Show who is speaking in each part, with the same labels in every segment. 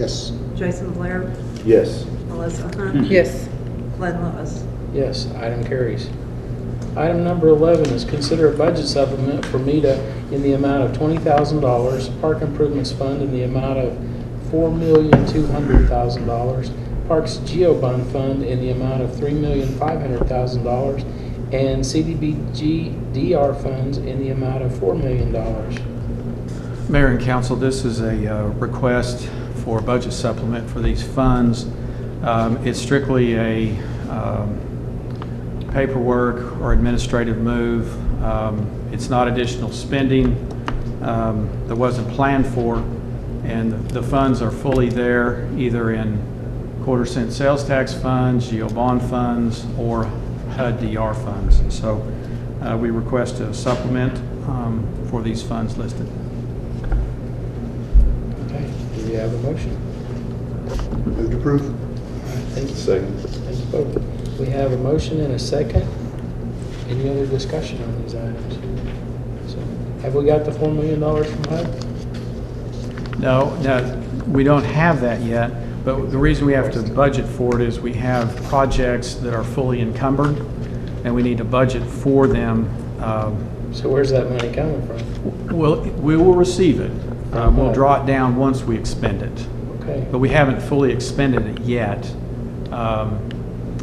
Speaker 1: Yes.
Speaker 2: Jason Blair,
Speaker 3: Yes.
Speaker 2: Melissa Hunt,
Speaker 4: Yes.
Speaker 2: Glenn Lewis.
Speaker 5: Yes, item carries. Item number 11 is consider a budget supplement for MEDA in the amount of $20,000, Park Improvements Fund in the amount of $4,200,000, Parks Geobond Fund in the amount of $3,500,000, and CDBG DR funds in the amount of $4 million.
Speaker 6: Mayor and council, this is a uh, request for a budget supplement for these funds. Um, It's strictly a um, paperwork or administrative move. Um, It's not additional spending um, that wasn't planned for, and the funds are fully there, either in quarter cent sales tax funds, geo bond funds, or HUD DR funds. So uh, we request a supplement um, for these funds listed.
Speaker 5: Okay, do we have a motion?
Speaker 1: Move to approve.
Speaker 5: Thank you.
Speaker 3: Second.
Speaker 5: Thank you both. We have a motion and a second. Any other discussion on these items? So, Have we got the $4 million from HUD?
Speaker 6: No, no, we don't have that yet, but the reason we have to budget for it is we have projects that are fully encumbered, and we need to budget for them. Um,
Speaker 5: So where's that money coming from?
Speaker 6: Well, we will receive it. Um, We'll draw it down once we expend it,
Speaker 5: Okay,
Speaker 6: but we haven't fully expended it yet, um,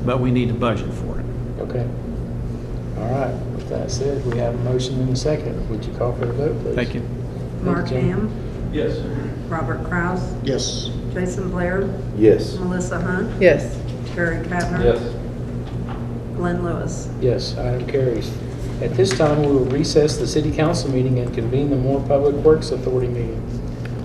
Speaker 6: but we need to budget for it.
Speaker 5: okay. All right, with that said, we have a motion and a second. Would you call for the vote, please?
Speaker 6: Thank you.
Speaker 2: Mark
Speaker 5: Jim.
Speaker 2: Ham,
Speaker 3: Yes.
Speaker 2: Robert Kraus,
Speaker 1: Yes.
Speaker 2: Jason Blair,
Speaker 3: Yes.
Speaker 2: Melissa Hunt,
Speaker 4: Yes.
Speaker 2: Terry Kavner. Glenn Lewis.
Speaker 5: Yes, item carries. At this time, we will recess the city council meeting and convene the Moore Public Works Authority meeting.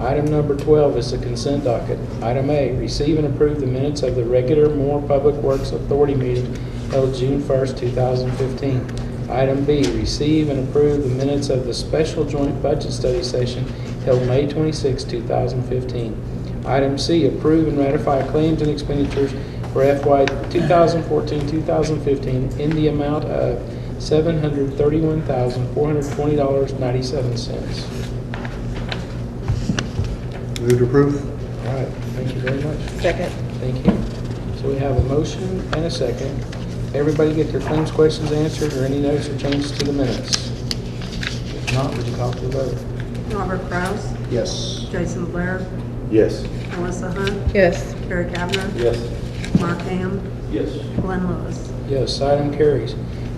Speaker 5: Item number 12 is the consent docket. Item A, receive and approve the minutes of the regular Moore Public Works Authority meeting held June 1st, 2015. Item B, receive and approve the minutes of the special joint budget study session held May 26, 2015. Item C, approve and ratify claims and expenditures for FY 2014-2015 in the amount of $731,420.97.
Speaker 1: Move to approve.
Speaker 5: All right, thank you very much.
Speaker 4: Second.
Speaker 5: Thank you. So we have a motion and a second. Everybody get their claims, questions answered, or any notes or changes to the minutes? If not, would you call for the vote?
Speaker 2: Robert Kraus,
Speaker 1: Yes.
Speaker 2: Jason Blair,
Speaker 3: Yes.
Speaker 2: Melissa Hunt,
Speaker 4: Yes.
Speaker 2: Terry Kavner,
Speaker 3: Yes.
Speaker 2: Mark Ham,
Speaker 3: Yes.
Speaker 2: Glenn Lewis.
Speaker 5: Yes, item carries.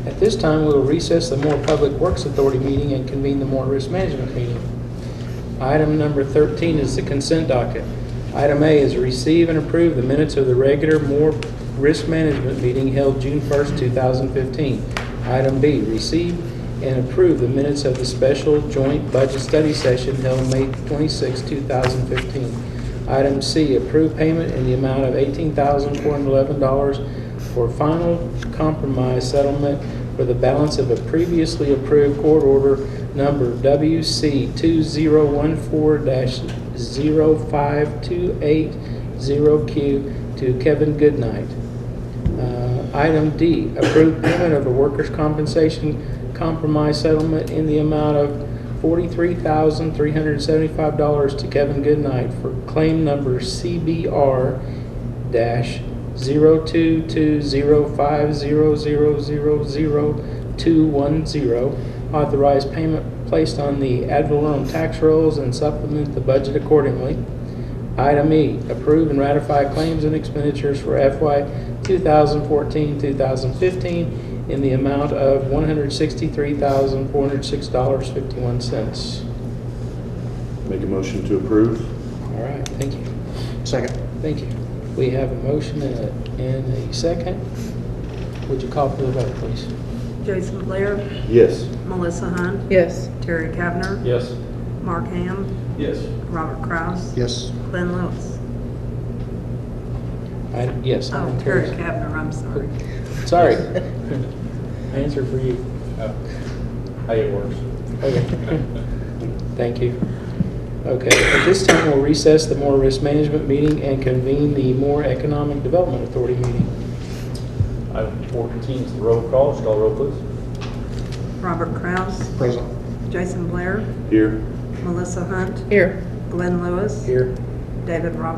Speaker 5: At this time, we will recess the Moore Public Works Authority meeting and convene the Moore Risk Management meeting. Item number 13 is the consent docket. Item A is receive and approve the minutes of the regular Moore Risk Management meeting held June 1st, 2015. Item B, receive and approve the minutes of the special joint budget study session held May 26, 2015. Item C, approve payment in the amount of $18,411 for final compromise settlement for the balance of a previously approved court order number WC 2014-05280Q to Kevin Goodnight. Uh, Item D, approve payment of a workers' compensation compromise settlement in the amount of $43,375 to Kevin Goodnight for claim number CBR dash zero two two zero five zero zero zero zero two one zero. Authorize payment placed on the ad valorem tax rolls and supplement the budget accordingly. Item E, approve and ratify claims and expenditures for FY 2014-2015 in the amount of $163,406.51.
Speaker 3: Make a motion to approve?
Speaker 5: All right, thank you.
Speaker 1: Second.
Speaker 5: Thank you. We have a motion and a, and a second. Would you call for the vote, please?
Speaker 2: Jason Blair,
Speaker 3: Yes.
Speaker 2: Melissa Hunt,
Speaker 4: Yes.
Speaker 2: Terry Kavner,
Speaker 3: Yes.
Speaker 2: Mark Ham,
Speaker 3: Yes.
Speaker 2: Robert Kraus,
Speaker 1: Yes.
Speaker 2: Glenn Lewis.
Speaker 5: I, yes. I
Speaker 2: Oh,
Speaker 5: am
Speaker 2: Terry
Speaker 5: curious.
Speaker 2: Kavner, I'm sorry.
Speaker 5: Sorry. Answer for you.
Speaker 7: Hey, it works.
Speaker 5: Okay. Thank you. Okay, at this time, we'll recess the Moore Risk Management meeting and convene the Moore Economic Development Authority meeting.
Speaker 7: Item 14 is the roll call. Just call roll, please.
Speaker 2: Robert Kraus,
Speaker 1: Present.
Speaker 2: Jason Blair,
Speaker 3: Here?
Speaker 2: Melissa Hunt,
Speaker 4: Here.
Speaker 2: Glenn Lewis,
Speaker 5: Here.
Speaker 2: David Roberts.